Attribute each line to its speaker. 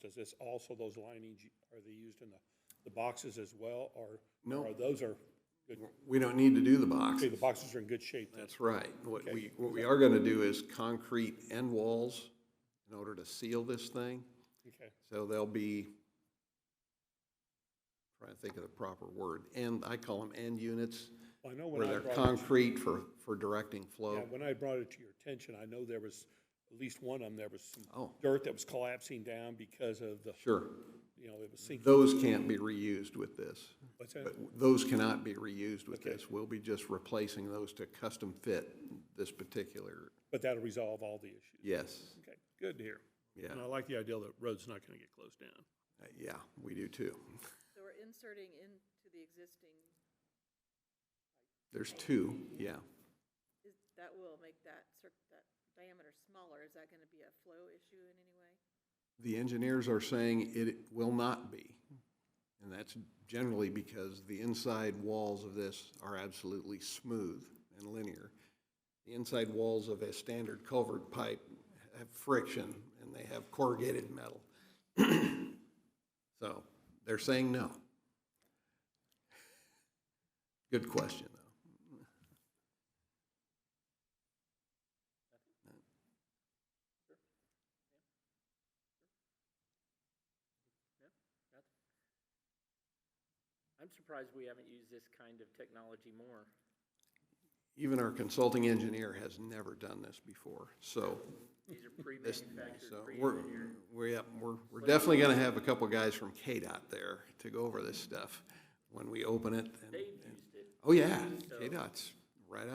Speaker 1: Does this, also those linings, are they used in the, the boxes as well, or?
Speaker 2: No.
Speaker 1: or Those are, good
Speaker 2: We don't need to do the box.
Speaker 1: okay, the boxes are in good shape then?
Speaker 2: That's right. What we, what we are gonna do is concrete end walls in order to seal this thing.
Speaker 1: Okay,
Speaker 2: So they'll be, trying to think of the proper word, and, I call them end units,
Speaker 1: well, I know when
Speaker 2: where
Speaker 1: I
Speaker 2: they're
Speaker 1: brought, it-
Speaker 2: concrete for, for directing
Speaker 1: yeah,
Speaker 2: flow.
Speaker 1: when I brought it to your attention, I know there was, at least one of them, there was some
Speaker 2: Oh.
Speaker 1: dirt that was collapsing down because of the,
Speaker 2: Sure.
Speaker 1: you know, it was sinking.
Speaker 2: Those can't be reused with this.
Speaker 1: What's that?
Speaker 2: But Those cannot be reused with
Speaker 1: Okay.
Speaker 2: this. We'll be just replacing those to custom fit this particular,
Speaker 1: But that'll resolve all the issues.
Speaker 2: yes,
Speaker 1: Okay, good to hear.
Speaker 2: yeah,
Speaker 1: And I like the idea that road's not gonna get closed down.
Speaker 2: yeah, we do too.
Speaker 3: So we're inserting into the existing,
Speaker 2: There's two, yeah.
Speaker 3: is, that will make that cir, that diameter smaller, is that gonna be a flow issue in any way?
Speaker 2: The engineers are saying it will not be. And that's generally because the inside walls of this are absolutely smooth and linear. The inside walls of a standard culvert pipe have friction and they have corrugated metal. So they're saying no. Good question, though.
Speaker 4: I'm surprised we haven't used this kind of technology more.
Speaker 2: Even our consulting engineer has never done this before, so
Speaker 4: These are
Speaker 2: this,
Speaker 4: pre-manufactured,
Speaker 2: so we're,
Speaker 4: pre-engineered.
Speaker 2: we're, yeah, we're, we're definitely gonna have a couple guys from KDOT there to go over this stuff when we open it. and-
Speaker 4: They've used it.
Speaker 2: Oh, yeah,
Speaker 4: So-
Speaker 2: KDOT's